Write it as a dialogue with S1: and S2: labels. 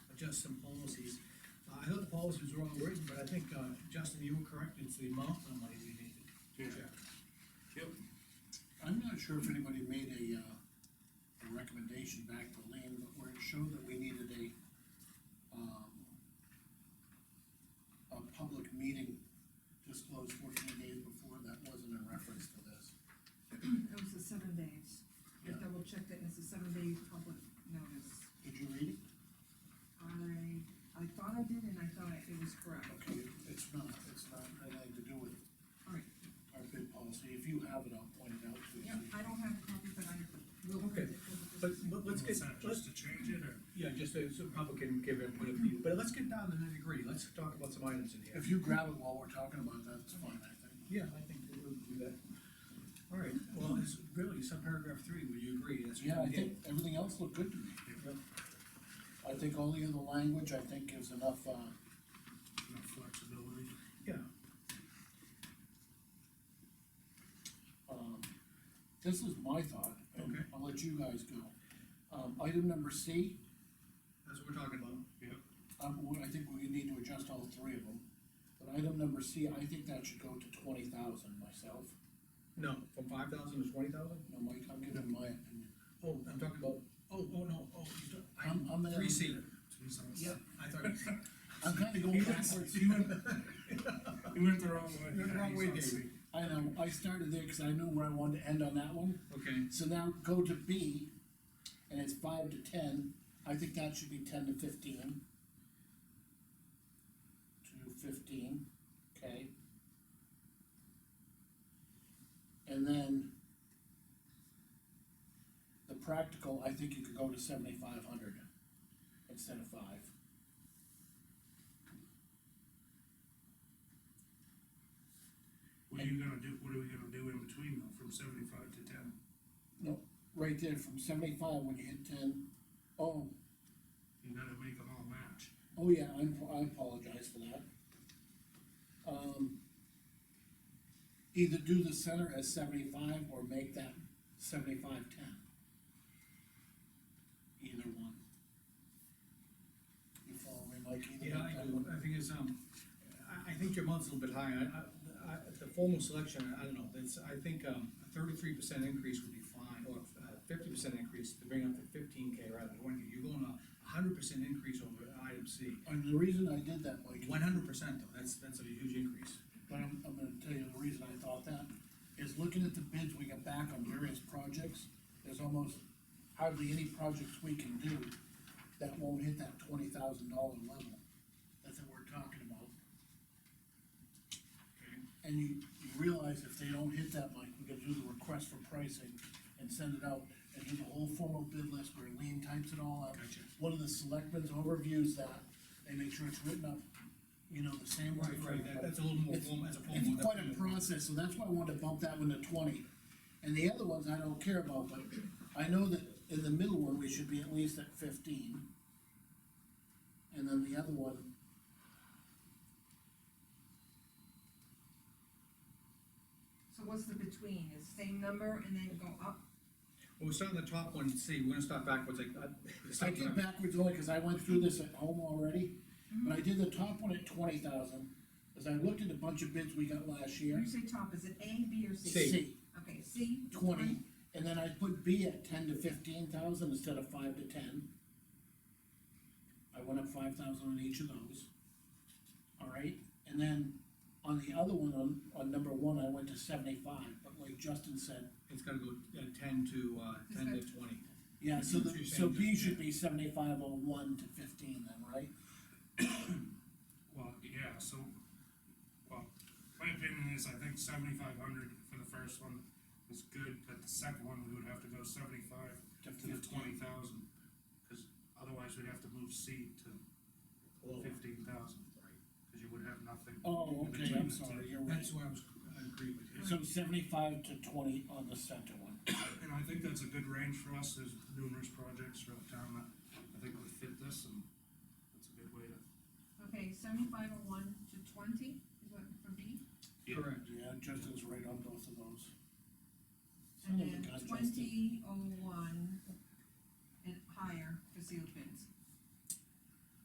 S1: just some policies. Uh, I thought the policy was wrong written, but I think, uh, Justin, you were correct, it's the amount of money we needed.
S2: Yeah.
S3: Yep.
S2: I'm not sure if anybody made a, uh, a recommendation back to Lean, but where it showed that we needed a, um, a public meeting disclosed fourteen days before, that wasn't in reference to this.
S4: It was the seven days. I
S2: Yeah.
S4: double checked it, and it's a seven day public notice.
S2: Did you read it?
S4: I, I thought I did, and I thought it was correct.
S2: Okay, it's not, it's not, anything to do with
S4: All right,
S2: our bid policy, if you have it, I'll point it out to you.
S4: yeah, I don't have a copy, but I will.
S1: Okay, But, but let's get,
S3: Is that
S1: let's,
S3: just to change it, or?
S1: yeah, just so so people can give input of view, but let's get down to nitty gritty, let's talk about some items in here.
S2: If you grab it while we're talking about that, it's fine, I think.
S1: Yeah, I think that we'll do that. All right, well, it's really, some paragraph three, would you agree? That's what
S2: Yeah, I
S1: we
S2: think
S1: did.
S2: everything else looked good to me. I think all the other language, I think gives enough, uh,
S3: Enough flexibility.
S1: Yeah,
S2: um, this is my thought. and
S1: Okay.
S2: I'll let you guys go. Um, item number C,
S1: that's what we're talking about.
S3: Yep.
S2: um, we- I think we need to adjust all three of them. But item number C, I think that should go to twenty thousand myself.
S1: No, from five thousand to twenty thousand?
S2: No, Mike, I'm giving my opinion.
S1: Oh, I'm talking about, oh, oh, no, oh, you don't-
S2: I'm- I'm the-
S1: Three C.
S3: Jesus.
S1: Yeah, I thought.
S2: I'm kinda going backwards.
S3: You went, you went the wrong way.
S1: Went the wrong way,
S3: He's on
S1: Dave.
S2: I know, I started there because I knew where I wanted to end on that one.
S1: Okay,
S2: So now go to B, and it's five to ten, I think that should be ten to fifteen. To fifteen, okay? And then the practical, I think you could go to seventy-five hundred instead of five.
S3: What are you gonna do, what are we gonna do in between though, from seventy-five to ten?
S2: Right there, from seventy-five, when you hit ten, oh,
S3: You gotta make them all match.
S2: Oh, yeah, I'm, I apologize for that. Um, either do the center as seventy-five or make that seventy-five ten. Either one. You follow me, Mike? Either
S1: yeah, I
S2: one.
S1: do, I think it's, um, I, I think your month's a little bit high, I, I, I, the formal selection, I don't know, that's, I think, um, a thirty-three percent increase would be fine, or uh fifty percent increase to bring up to fifteen K rather than twenty, you're going a hundred percent increase over item C.
S2: And the reason I did that, Mike,
S1: One hundred percent though, that's, that's a huge increase.
S2: but I'm, I'm gonna tell you the reason I thought that, is looking at the bids we got back on various projects, there's almost hardly any projects we can do that won't hit that twenty thousand dollar level that they we're talking about. And you, you realize if they don't hit that, Mike, we gotta do the request for pricing and send it out and do the whole formal bid list where Lean types it all out.
S1: Gotcha.
S2: One of the selectmen's overviews that, they make sure it's written up, you know, the same way.
S1: Right,
S2: for
S1: right, that,
S2: everybody.
S1: that's a little more
S2: It's-
S1: formal, as a formal.
S2: It's quite a process, so that's why I wanted to bump that one to twenty. And the other ones I don't care about, but I know that in the middle one, we should be at least at fifteen. And then the other one.
S4: So what's the between, is same number and then go up?
S1: Well, we start on the top one, C, we're gonna start backwards, like, uh,
S2: I
S1: start
S2: did
S1: back-
S2: backwards only because I went through this at home already, but I did the top one at twenty thousand, as I looked at a bunch of bids we got last
S4: When
S2: year.
S4: you say top, is it A, B, or C?
S1: C.
S4: Okay, C?
S2: Twenty, and then I put B at ten to fifteen thousand instead of five to ten. I went up five thousand on each of those. All right, and then on the other one, on, on number one, I went to seventy-five, but like Justin said,
S1: it's gotta go uh, ten to, uh, ten to twenty.
S2: yeah, so the,
S1: You're
S2: so
S1: saying
S2: B
S1: just-
S2: should be seventy-five oh one to fifteen then, right?
S3: Well, yeah, so, well, my opinion is I think seventy-five hundred for the first one is good, but the second one, we would have to go seventy-five
S2: To
S3: to the
S2: 15.
S3: twenty thousand. Cause otherwise we'd have to move C to fifteen thousand, cause you would have nothing.
S2: Oh,
S3: in
S2: okay, I'm
S3: between the two.
S2: sorry, you're right.
S1: That's where I was, I agree with you.
S2: So seventy-five to twenty on the center one.
S3: And I think that's a good range for us, there's numerous projects throughout town that I think would fit this, and that's a good way to.
S4: Okay, seventy-five oh one to twenty, is what, for B?
S3: Yeah.
S1: Correct.
S2: Yeah, Justin's right on both of those.
S4: And
S2: Oh my
S4: then
S2: God, Justin.
S4: twenty oh one